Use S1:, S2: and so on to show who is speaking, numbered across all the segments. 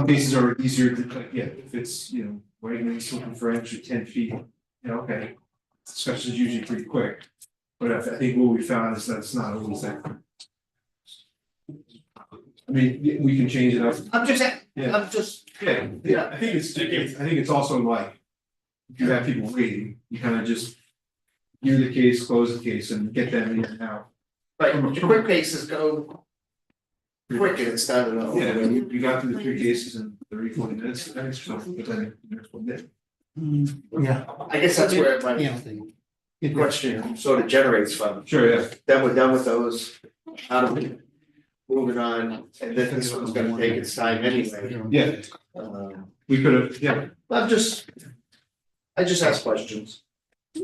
S1: Some cases are easier to, like, yeah, if it's, you know, waiting and looking for an extra ten feet, you know, okay. Discussion's usually pretty quick, but I I think what we found is that's not always that. I mean, we- we can change it up,
S2: I'm just,
S1: Yeah.
S2: I'm just,
S1: yeah, yeah, I think it's, it's- I think it's also like. If you have people waiting, you kind of just. Hear the case, close the case and get them in and out.
S2: like, the quick cases go quicker instead of.
S1: Yeah, I mean, you you got through the three cases in thirty, forty minutes, I think so, but then the next one did.
S3: Yeah.
S2: I guess that's where my
S3: Yeah.
S2: question sort of generates from,
S1: Sure, yeah.
S2: then we're done with those, out of it. Moving on, and then this one's gonna take its time anyway,
S1: Yeah.
S2: um,
S1: We could have, yeah,
S2: I'm just. I just ask questions,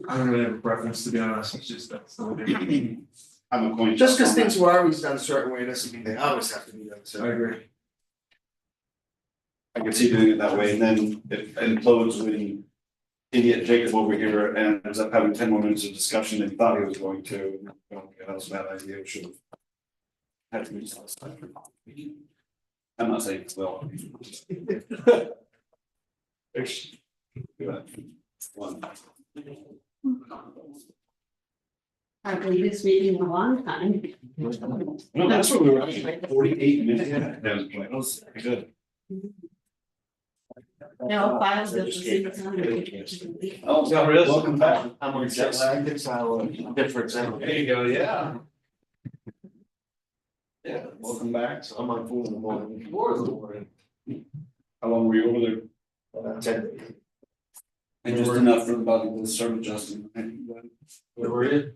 S1: I don't really have a preference, to be honest, it's just that's the way. they-
S4: I'm a coin.
S2: just because things were always done a certain way, doesn't mean they always have to be done,
S1: I
S2: so.
S1: agree.
S4: I could see doing it that way, and then it implodes when idiot Jacob over here ends up having ten more minutes of discussion than he thought he was going to. Well, yeah, That was a bad idea, should have. Had to reach last time. I'm not saying it's well. It's- yeah, One.
S5: I believe this meeting in a long time.
S4: No, that's what we were, at, forty-eight minutes, yeah, that was, that was good.
S5: No, files that was in the time.
S4: Oh,
S2: No, really?
S4: Welcome back.
S2: I'm on jet lag, it's our difference, anyway.
S4: you go, yeah. Yeah, welcome back, so
S2: I'm on four in the morning.
S4: Four in the morning. how long were you over there?
S2: Uh, ten.
S4: And just enough for the body to serve Justin.
S2: Where were you?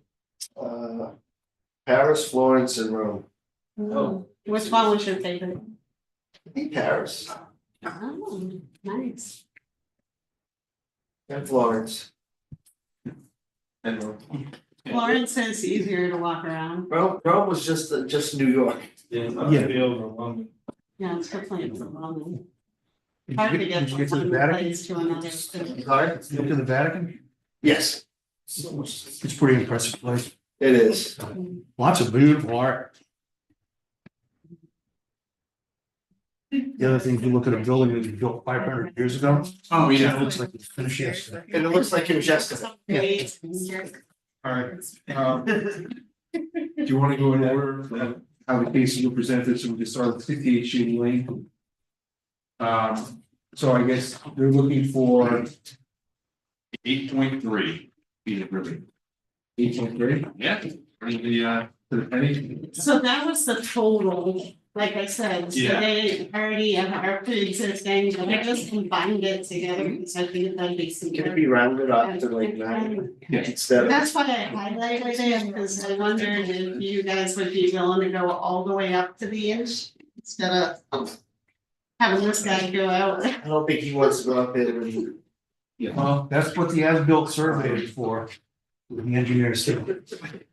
S2: Uh, Paris, Florence and Rome.
S5: Oh. Which one was your favorite?
S2: I think Paris
S5: Oh, nice.
S2: and Florence.
S1: And uh, we're-
S5: Florence is easier to walk around.
S2: Rome, Rome was just, uh, just New York.
S3: Yeah.
S5: Yeah, it's definitely it's a long.
S3: Did
S5: Hard to
S3: you
S5: get
S3: get, did you
S5: from
S3: get to
S5: one
S3: the Vatican?
S5: place to another.
S2: Sorry?
S3: Did you Get to the Vatican?
S2: Yes,
S3: It's a pretty impressive place.
S2: it is.
S3: Lots of beautiful art. The other thing, if you look at a building that was built five hundred years ago.
S1: Oh,
S3: It looks like it's finished yesterday.
S2: And it looks like it was yesterday.
S1: Alright, um. Do you wanna go in order, of how the cases were presented, so we can start with fifty eight Shady Lane? Um, so I guess they're looking for
S6: Eight point three, be it really,
S1: eight point three,
S6: yeah, bring the uh,
S1: to the penny,
S5: So that was the total, like I said, so
S6: Yeah.
S5: they already have our pre-existing, but I just combined it together because I think that'd be
S2: Can it
S5: simpler.
S2: Mm-hmm. be rounded up to like nine instead of?
S5: That's why I highlighted it, because I wondered if you guys would be willing to go all the way up to the inch instead of having this guy go out.
S2: I don't think he wants to go up there and.
S3: Well, that's what the as-built survey is for, with the engineers do.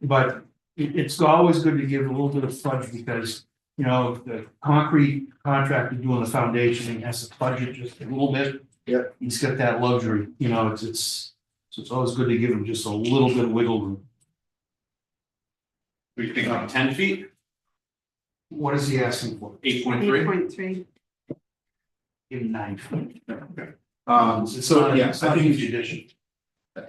S3: But it, it's always good to give a little bit of fudge because, you know, the concrete contractor doing the foundation, he has to fudge it just a little bit.
S2: Yep.
S3: He's got that luxury, you know, it's, it's, so it's always good to give him just a little bit of wiggle room.
S6: we think on ten feet,
S3: What is he asking for?
S6: eight point
S5: Eight
S6: three.
S5: point three.
S3: Give him nine foot.
S1: um,
S3: It's
S1: so,
S3: not-
S1: yeah,
S3: it's
S1: so I
S3: not
S1: think.
S3: judicious.
S1: Yeah,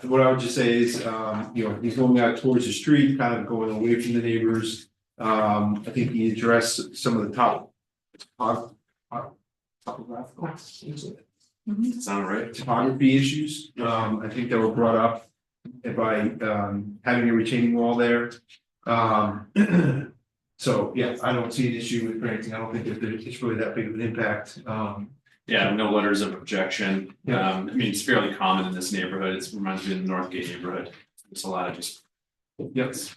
S1: I- what I would just say is, um, you know, he's going out towards the street, kind of going away from the neighbors. Um, I think he addressed some of the top. top- top- Topographical.
S6: Sound right?
S1: Topography issues, um, I think that were brought up by, um, having a retaining wall there. Um. So, yeah, I don't see an issue with granting, I don't think that there- it's really that big of an impact, um.
S6: Yeah, no letters of objection,
S1: Yeah.
S6: um, I mean, it's fairly common in this neighborhood, it reminds me of the Northgate neighborhood, it's a lot of just. Yes.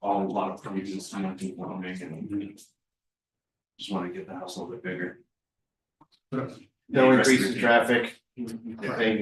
S6: All a lot of pre-existing, I think, warming and. Just wanna get the house a little bit bigger.
S2: No increase in traffic. I think